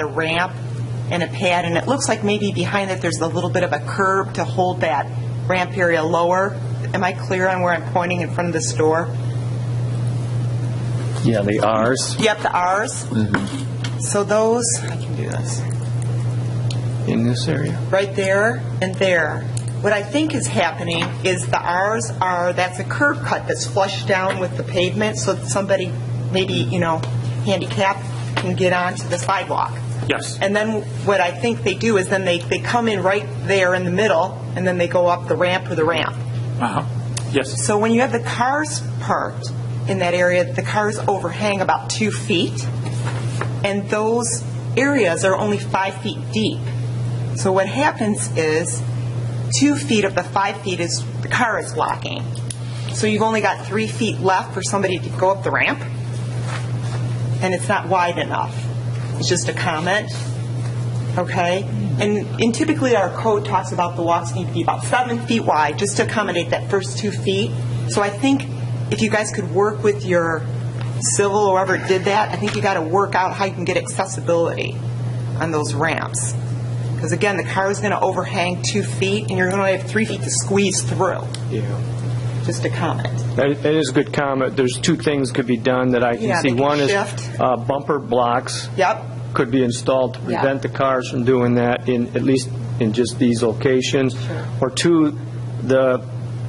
a ramp and a pad, and it looks like maybe behind it, there's a little bit of a curb to hold that ramp area lower. Am I clear on where I'm pointing in front of the store? Yeah, the Rs. Yep, the Rs. So those, I can do this, In this area? right there and there. What I think is happening is the Rs are, that's a curb cut that's flushed down with the pavement, so that somebody, maybe, you know, handicapped, can get onto the sidewalk. Yes. And then what I think they do is then they, they come in right there in the middle, and then they go up the ramp or the ramp. Uh-huh. Yes, So when you have the cars parked in that area, the cars overhang about two feet, and those areas are only five feet deep. So what happens is, two feet of the five feet is, the car is blocking. So you've only got three feet left for somebody to go up the ramp, and it's not wide enough. It's just a comment okay? And, and typically, our code talks about the walks need to be about seven feet wide, just to accommodate that first two feet. So I think if you guys could work with your civil, whoever did that, I think you got to work out how you can get accessibility on those ramps. Because again, the car is going to overhang two feet, and you're going to have three feet to squeeze through. Yeah. Just a comment. That that is a good comment. There's two things could be done that I can Yeah, see. they can One is shift. uh, bumper blocks. Yep. Could be installed to Yeah. prevent the cars from doing that in, at least in just these locations. Or two, the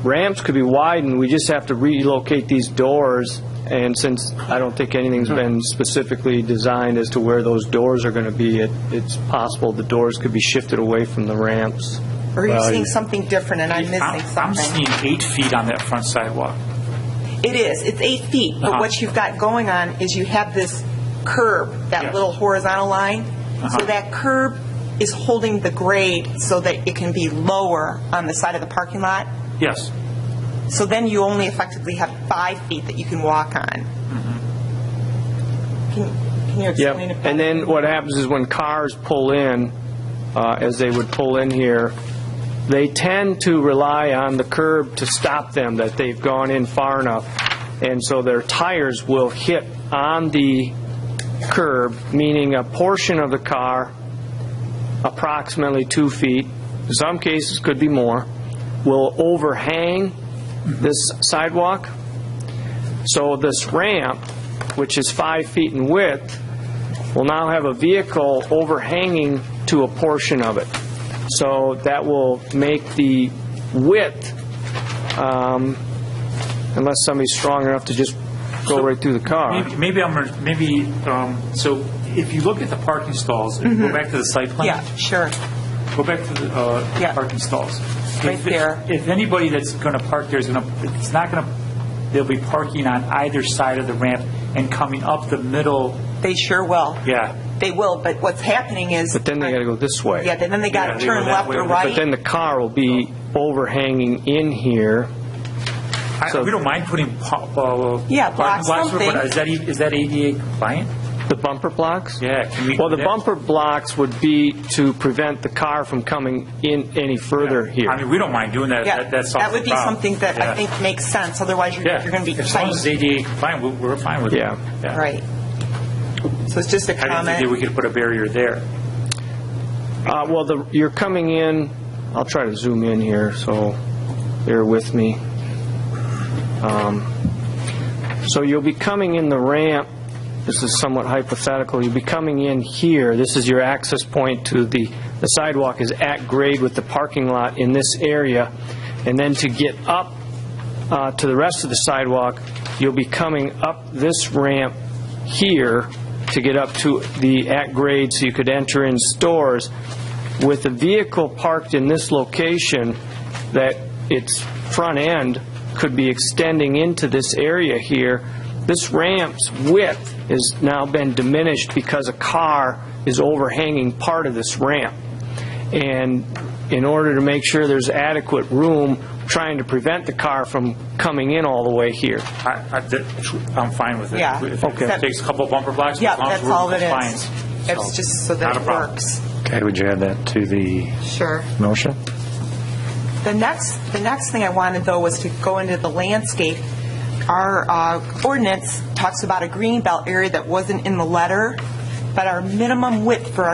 ramps could be widened. We just have to relocate these doors. And since I don't think anything's been specifically designed as to where those doors are going to be, it, it's possible the doors could be shifted away from the ramps. Or you're Well, seeing something different, and I'm missing I'm I'm something. seeing eight feet on that front sidewalk. It is, it's eight feet, but Uh-huh. what you've got going on is you have this curb, Yeah. that little horizontal line. So Uh-huh. that curb is holding the grade so that it can be lower on the side of the parking lot. Yes, So then you only effectively have five feet that you can walk on. Mm-hmm. Can can you Yep, explain it? and then better? what happens is when cars pull in, uh, as they would pull in here, they tend to rely on the curb to stop them, that they've gone in far enough, and so their tires will hit on the curb, meaning a portion of the car, approximately two feet, in some cases could be more, will overhang this sidewalk. So this ramp, which is five feet in width, will now have a vehicle overhanging to a portion of it. So that will make the width, um, unless somebody's strong enough to just go right through the car. maybe, maybe I'm, maybe, um, so if you look at the parking stalls, if you go back to the site plan. Mm-hmm. Yeah, sure. Go back to the, uh, Yeah. parking stalls. Right If- there. If anybody that's gonna park there is gonna, it's not gonna, they'll be parking on either side of the ramp and coming up the middle, They sure will. yeah. They will, but what's happening is. But then they gotta go this way. Yeah, then then they Yeah, got to they go turn that left way, or but right. But then the car will be overhanging in here. I, So- we don't mind putting, pa- uh. Yeah, block parking lots, but something. Is that, e- is that ADA compliant? The bumper blocks? Yeah, can we- Well, the that- bumper blocks would be to prevent the car from coming in any further I here. mean, we don't mind doing that, Yeah, that, that solves the that would be problem. something that I Yeah. think makes sense, otherwise you're, Yeah. you're going to be. As long as it's ADA compliant, we- we're fine with it. Yeah. Right. So it's just a I didn't think that we comment. could put a barrier there. Uh, well, the, you're coming in, I'll try to zoom in here, so bear with me. Um, So you'll be coming in the ramp, this is somewhat hypothetical, you'll be coming in here, this is your access point to the, the sidewalk is at grade with the parking lot in this area, and then to get up uh, to the rest of the sidewalk, you'll be coming up this ramp here to get up to the at grade so you could enter in stores. With a vehicle parked in this location, that its front end could be extending into this area here, this ramp's width has now been diminished because a car is overhanging part of this ramp. And in order to make sure there's adequate room, trying to prevent the car from coming in all the way here. I, I, that- I'm fine with it. Yeah. If Okay. It takes a couple bumper blocks, as Yeah, long as that's we're all it in is. compliance. It's just so not that a it problem. works. Okay, would you add that to the Sure. motion? The next, the next thing I wanted, though, was to go into the landscape. Our uh, ordinance talks about a green belt area that wasn't in the letter, but our minimum width for our